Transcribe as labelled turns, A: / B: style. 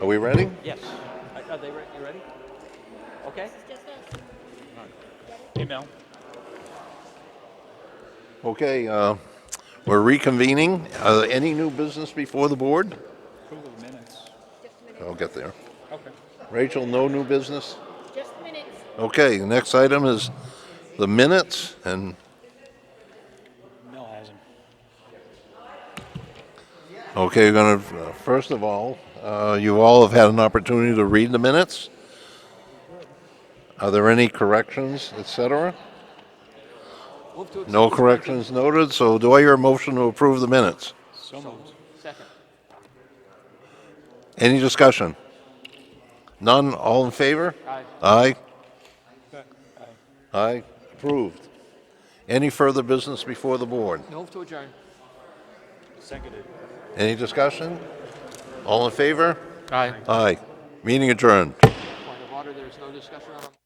A: Are we ready?
B: Yes. Are- Are they, re- you ready? Okay? Email.
A: Okay, uh, we're reconvening. Uh, Any new business before the board?
B: Approval of minutes.
A: I'll get there.
B: Okay.
A: Rachel, no new business?
C: Just a minute.
A: Okay, the next item is the minutes, and,
B: Mel has them.
A: okay, we're going to, first of all, uh, you all have had an opportunity to read the minutes. Are there any corrections, et cetera?
B: Move to accept.
A: No corrections noted, so do I hear a motion to approve the minutes?
B: So moved. Second.
A: Any discussion? None, all in favor?
B: Aye.
A: Aye?
B: Aye.
A: Aye, approved. Any further business before the board?
B: Move to adjourn. Seconded.
A: Any discussion? All in favor?
B: Aye.
A: Aye. Meeting adjourned.
B: Point of order, there is no discussion on.